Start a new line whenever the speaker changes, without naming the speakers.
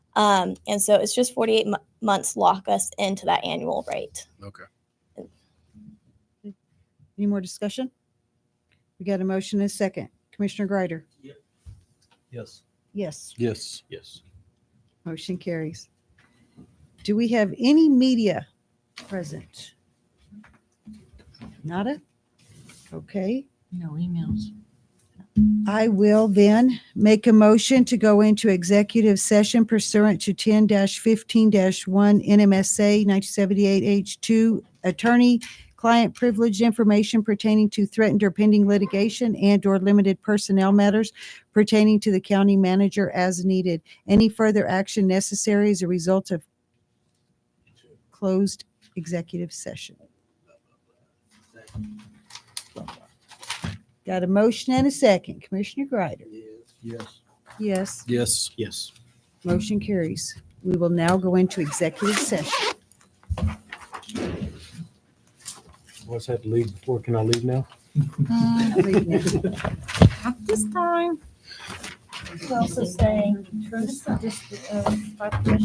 Um, and so it's just 48 mo- months lock us into that annual rate.
Okay.
Any more discussion? We got a motion and a second. Commissioner Greider?
Yes.
Yes,
Yes.
Yes.
motion carries. Do we have any media present? Nada? Okay,
No emails.
I will then make a motion to go into executive session pursuant to ten fifteen one NMSA nineteen seventy-eight H two attorney client privilege information pertaining to threatened or pending litigation and or limited personnel matters pertaining to the county manager as needed. Any further action necessary as a result of closed executive session. Got a motion and a second. Commissioner Greider?
Yes.
Yes.
Yes.
Yes.
Motion carries. We will now go into executive session.
Always had to leave before. Can I leave now?
This time.
also saying,